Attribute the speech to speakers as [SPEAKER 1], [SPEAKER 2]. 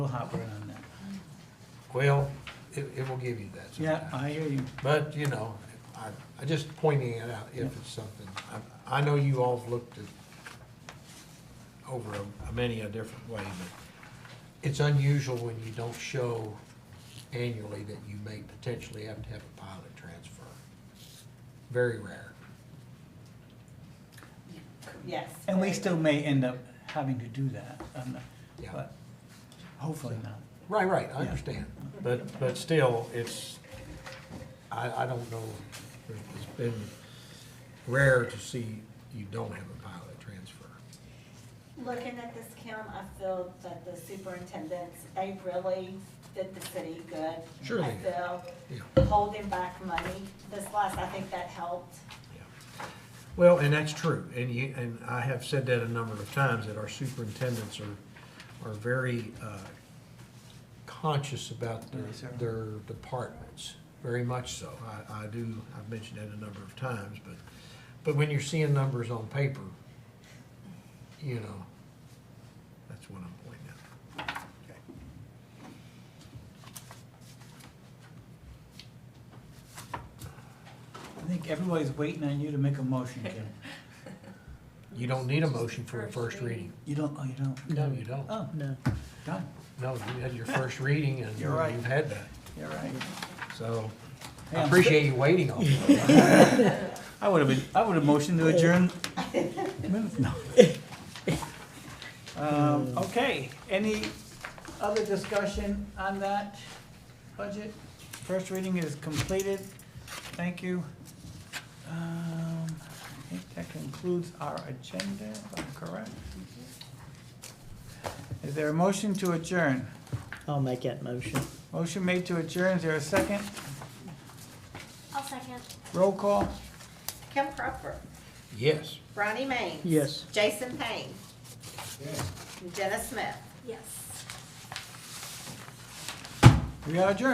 [SPEAKER 1] We'll hop around on that.
[SPEAKER 2] Well, it, it will give you that
[SPEAKER 1] Yeah,
[SPEAKER 2] sometimes.
[SPEAKER 1] I hear you.
[SPEAKER 2] But, you know, I, I just pointing it out if it's something. I, I know you all have looked at over a, a many a different way, but it's unusual when you don't show annually that you may potentially have to have a pilot transfer. Very rare.
[SPEAKER 3] Yes.
[SPEAKER 1] And we still may end up having to do that, um,
[SPEAKER 2] Yeah.
[SPEAKER 1] but hopefully not.
[SPEAKER 2] Right, right, I
[SPEAKER 1] Yeah.
[SPEAKER 2] understand. But, but still, it's, I, I don't know, it's been rare to see you don't have a pilot transfer.
[SPEAKER 3] Looking at this, Kim, I feel that the superintendents, they really did the city good.
[SPEAKER 2] Sure they
[SPEAKER 3] I
[SPEAKER 2] did.
[SPEAKER 3] feel
[SPEAKER 2] Yeah.
[SPEAKER 3] holding back money this last, I think that helped.
[SPEAKER 2] Yeah. Well, and that's true, and you, and I have said that a number of times, that our superintendents are, are very, uh, conscious about their,
[SPEAKER 1] Yes, sir.
[SPEAKER 2] their departments, very much so. I, I do, I've mentioned that a number of times, but, but when you're seeing numbers on paper, you know, that's what I'm pointing at.
[SPEAKER 1] I think everybody's waiting on you to make a motion, Kim.
[SPEAKER 2] You don't need a motion for a first reading.
[SPEAKER 1] You don't, oh, you don't?
[SPEAKER 2] No, you don't.
[SPEAKER 1] Oh,
[SPEAKER 4] No.
[SPEAKER 1] done.
[SPEAKER 2] No, you had your first reading and
[SPEAKER 1] You're right.
[SPEAKER 2] you've had that,
[SPEAKER 1] You're right.
[SPEAKER 2] so
[SPEAKER 1] Hey,
[SPEAKER 2] I
[SPEAKER 1] I'm
[SPEAKER 2] appreciate you waiting on me.
[SPEAKER 1] I would have been, I would have motioned to adjourn. minutes- no. Um, okay, any other discussion on that budget? First reading is completed. Thank you. Um, I think that concludes our agenda, if I'm correct. Is there a motion to adjourn?
[SPEAKER 4] I'll make that motion.
[SPEAKER 1] Motion made to adjourn, is there a second?
[SPEAKER 3] I'll second.
[SPEAKER 1] Roll call?
[SPEAKER 3] Kim Crawford,
[SPEAKER 2] Yes.
[SPEAKER 3] Ronnie Main.
[SPEAKER 4] Yes.
[SPEAKER 3] Jason Payne. Jenna Smith.
[SPEAKER 5] Yes.
[SPEAKER 1] We are adjourned.